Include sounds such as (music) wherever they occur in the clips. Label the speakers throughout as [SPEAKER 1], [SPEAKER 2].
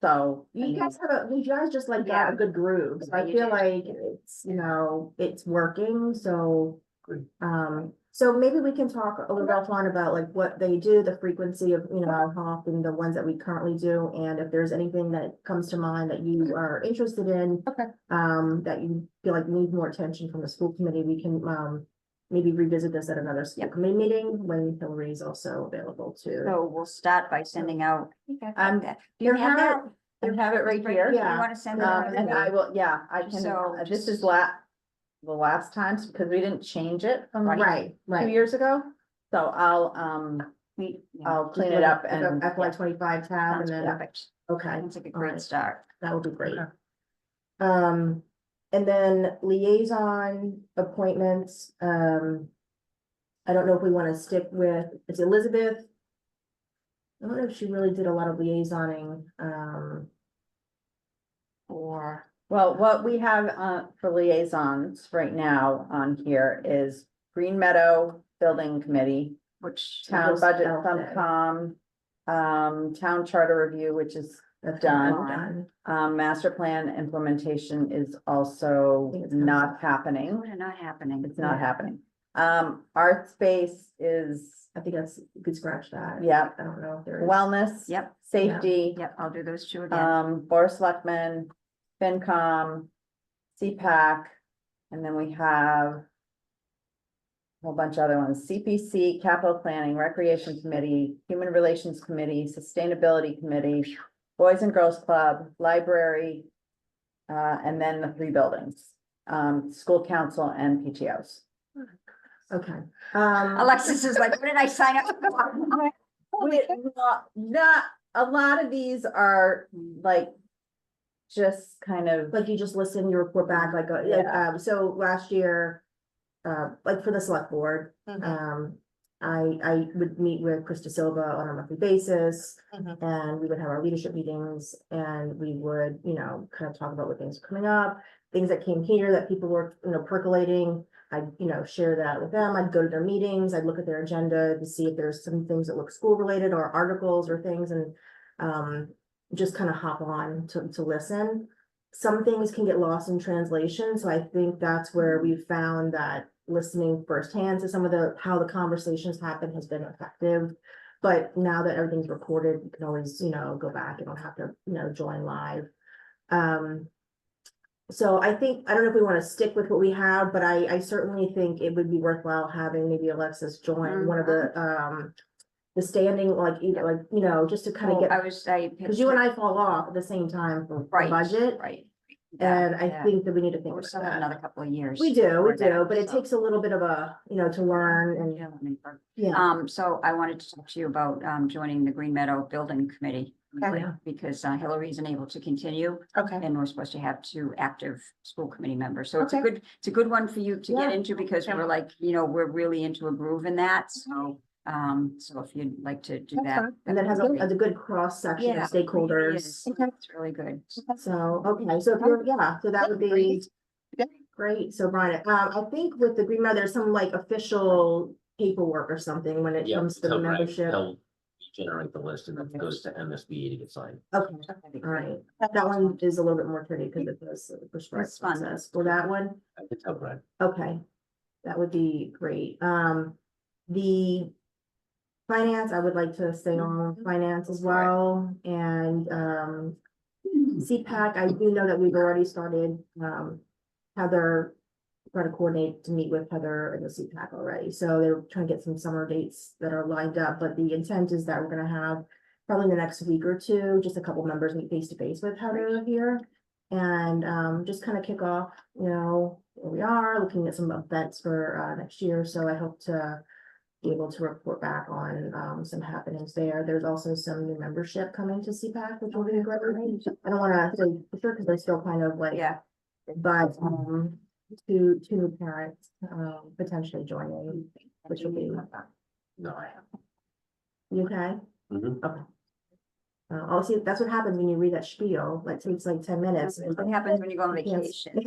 [SPEAKER 1] So
[SPEAKER 2] I
[SPEAKER 1] you
[SPEAKER 2] mean-
[SPEAKER 1] guys have, a- you guys just like got
[SPEAKER 2] Yeah.
[SPEAKER 1] a good groove, so
[SPEAKER 2] Yeah,
[SPEAKER 1] I
[SPEAKER 2] you
[SPEAKER 1] feel
[SPEAKER 2] did.
[SPEAKER 1] like it's, you know, it's working, so.
[SPEAKER 3] Good.
[SPEAKER 1] Um, so maybe we can talk a little offline about like what they do, the frequency of, you know, how often the ones that we currently do, and if there's anything that comes to mind that you are interested in.
[SPEAKER 2] Okay.
[SPEAKER 1] Um, that you feel like need more attention from the school committee, we can, um, maybe revisit this at another school
[SPEAKER 2] Yeah.
[SPEAKER 1] committee meeting when Hillary is also available too.
[SPEAKER 2] So we'll start by sending out.
[SPEAKER 1] Um,
[SPEAKER 2] Do
[SPEAKER 1] You
[SPEAKER 2] have
[SPEAKER 1] have it,
[SPEAKER 2] that?
[SPEAKER 1] you have it right here.
[SPEAKER 2] You wanna send it
[SPEAKER 1] Um,
[SPEAKER 2] out?
[SPEAKER 1] and I will, yeah, I can,
[SPEAKER 2] So-
[SPEAKER 1] uh, this is la-
[SPEAKER 4] la- the last times, because we didn't change it from
[SPEAKER 1] right,
[SPEAKER 4] two
[SPEAKER 1] right.
[SPEAKER 4] years ago. So I'll, um,
[SPEAKER 2] We- yeah,
[SPEAKER 4] I'll clean it up and,
[SPEAKER 1] FY twenty-five tab and
[SPEAKER 2] Sounds
[SPEAKER 1] then,
[SPEAKER 2] perfect.
[SPEAKER 1] okay,
[SPEAKER 2] Sounds like a
[SPEAKER 1] Alright.
[SPEAKER 2] great start.
[SPEAKER 1] that would be great.
[SPEAKER 3] Okay.
[SPEAKER 1] Um, and then liaison appointments, um. I don't know if we wanna stick with, it's Elizabeth. I don't know if she really did a lot of liaisoning, um. Or.
[SPEAKER 4] well, what we have, uh, for liaisons right now on here is Green Meadow Building Committee,
[SPEAKER 2] Which,
[SPEAKER 4] Town
[SPEAKER 1] Those
[SPEAKER 4] Budget
[SPEAKER 1] out there.
[SPEAKER 4] FinCom, um, Town Charter Review, which is,
[SPEAKER 1] that's
[SPEAKER 4] Done.
[SPEAKER 1] not done.
[SPEAKER 4] um, Master Plan Implementation is
[SPEAKER 1] I
[SPEAKER 4] also
[SPEAKER 1] think it's coming
[SPEAKER 4] not
[SPEAKER 1] up.
[SPEAKER 4] happening.
[SPEAKER 2] what are not happening?
[SPEAKER 4] It's not happening. Um, Art Space is,
[SPEAKER 1] I think that's, you could scratch that.
[SPEAKER 4] yeah,
[SPEAKER 1] I don't know if there is.
[SPEAKER 4] wellness.
[SPEAKER 2] Yep,
[SPEAKER 4] Safety.
[SPEAKER 2] yep, I'll do those two
[SPEAKER 1] Uh,
[SPEAKER 2] again.
[SPEAKER 4] Um, Board of Selectmen, FinCom, CPAC, and then we have a whole bunch of other ones, CPC, Capital Planning, Recreation Committee, Human Relations Committee, Sustainability Committee, Boys and Girls Club, Library, uh, and then the three buildings, um, School Council and PTOs.
[SPEAKER 1] Okay, um,
[SPEAKER 2] Alexis is like, what did I sign up (laughs) for?
[SPEAKER 4] We- Not, not, a lot of these are like just kind of.
[SPEAKER 1] like you just listen, you report back, like, uh, yeah, um, so last year. Uh, like for the select board,
[SPEAKER 2] Mm-hmm.
[SPEAKER 3] Mhm.
[SPEAKER 1] um, I, I would meet with Krista Silva on a monthly basis.
[SPEAKER 3] Mhm.
[SPEAKER 1] And we would have our leadership meetings and we would, you know, kind of talk about what things are coming up, things that came here that people were, you know, percolating. I'd, you know, share that with them. I'd go to their meetings. I'd look at their agenda to see if there's some things that look school related or articles or things and um, just kind of hop on to, to listen. Some things can get lost in translation, so I think that's where we found that listening firsthand to some of the, how the conversations happen has been effective. But now that everything's recorded, you can always, you know, go back, you don't have to, you know, join live. Um, so I think, I don't know if we want to stick with what we have, but I, I certainly think it would be worthwhile having maybe Alexis join one of the, um, the standing, like, you know, like, you know, just to kind of get
[SPEAKER 2] I was, I.
[SPEAKER 1] because you and I fall off at the same time for for
[SPEAKER 2] Right,
[SPEAKER 1] budget,
[SPEAKER 2] Right. Yeah,
[SPEAKER 1] and I
[SPEAKER 2] yeah.
[SPEAKER 1] think that we need to think
[SPEAKER 2] We're
[SPEAKER 1] about
[SPEAKER 2] still have another
[SPEAKER 1] that.
[SPEAKER 2] couple of years.
[SPEAKER 1] We do, we
[SPEAKER 2] before that,
[SPEAKER 1] do, but it
[SPEAKER 2] so-
[SPEAKER 1] takes a little bit of a, you know, to learn and,
[SPEAKER 2] Yeah, I mean, for-
[SPEAKER 1] yeah.
[SPEAKER 2] Um, so I wanted to talk to you about, um, joining the Green Meadow Building Committee.
[SPEAKER 1] Okay.
[SPEAKER 2] Because uh, Hillary isn't able to continue
[SPEAKER 3] Okay.
[SPEAKER 2] and we're supposed to have two active school committee members. So it's a
[SPEAKER 3] Okay.
[SPEAKER 2] good, it's a good one for you to
[SPEAKER 1] Yeah.
[SPEAKER 2] get into because
[SPEAKER 3] Yeah.
[SPEAKER 2] we're like, you know, we're really into a groove in that. So, um, so if you'd like to do
[SPEAKER 3] That's
[SPEAKER 2] that.
[SPEAKER 3] fine.
[SPEAKER 1] And
[SPEAKER 2] that
[SPEAKER 1] that has a,
[SPEAKER 2] would be
[SPEAKER 1] has a good cross
[SPEAKER 2] great.
[SPEAKER 1] section
[SPEAKER 2] Yeah,
[SPEAKER 1] of
[SPEAKER 2] it really
[SPEAKER 1] stakeholders,
[SPEAKER 2] is.
[SPEAKER 3] Okay.
[SPEAKER 2] It's really good.
[SPEAKER 1] so, okay, so if you're, yeah, so that would be
[SPEAKER 3] Great. Yeah.
[SPEAKER 1] great, so Brian, um, I think with the Green Meadow, there's some like official paperwork or something when it
[SPEAKER 5] Yeah,
[SPEAKER 1] comes to the
[SPEAKER 5] tell Brad,
[SPEAKER 1] membership, okay,
[SPEAKER 5] tell- Generate the list and then it goes to MSBA to get signed.
[SPEAKER 1] all
[SPEAKER 2] That'd be great.
[SPEAKER 1] right. That one is a little bit more tricky because it does the prescribed
[SPEAKER 2] It's fun.
[SPEAKER 1] process for that one.
[SPEAKER 5] I could tell Brad.
[SPEAKER 1] Okay, that would be great. Um, the finance, I would like to stay on finance as well, and, um, CPAC, I do know that we've already started, um, Heather, try to coordinate to meet with Heather and the CPAC already, so they're trying to get some summer dates that are lined up, but the intent is that we're gonna have probably in the next week or two, just a couple members meet face to face with Heather here. And, um, just kind of kick off, you know, where we are, looking at some events for, uh, next year, so I hope to be able to report back on, um, some happenings there. There's also some new membership coming to CPAC, which will be great. I don't wanna say for sure, cause I still kind of like.
[SPEAKER 2] Yeah.
[SPEAKER 1] But, um, two, two new parents, um, potentially joining, which will be,
[SPEAKER 5] No, I haven't.
[SPEAKER 1] you okay?
[SPEAKER 5] Mhm.
[SPEAKER 1] Uh, I'll see, that's what happens when you read that spiel, like takes like ten minutes. and-
[SPEAKER 2] What happens when you go on
[SPEAKER 1] I can't-
[SPEAKER 2] vacation?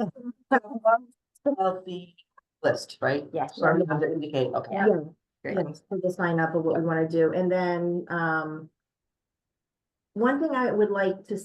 [SPEAKER 3] Of the list, right?
[SPEAKER 2] Yes.
[SPEAKER 3] So I'm gonna indicate, okay.
[SPEAKER 2] Yeah.
[SPEAKER 1] Yeah,
[SPEAKER 2] Great.
[SPEAKER 1] yeah, so just line up of what we wanna do, and then, um. One thing I would like to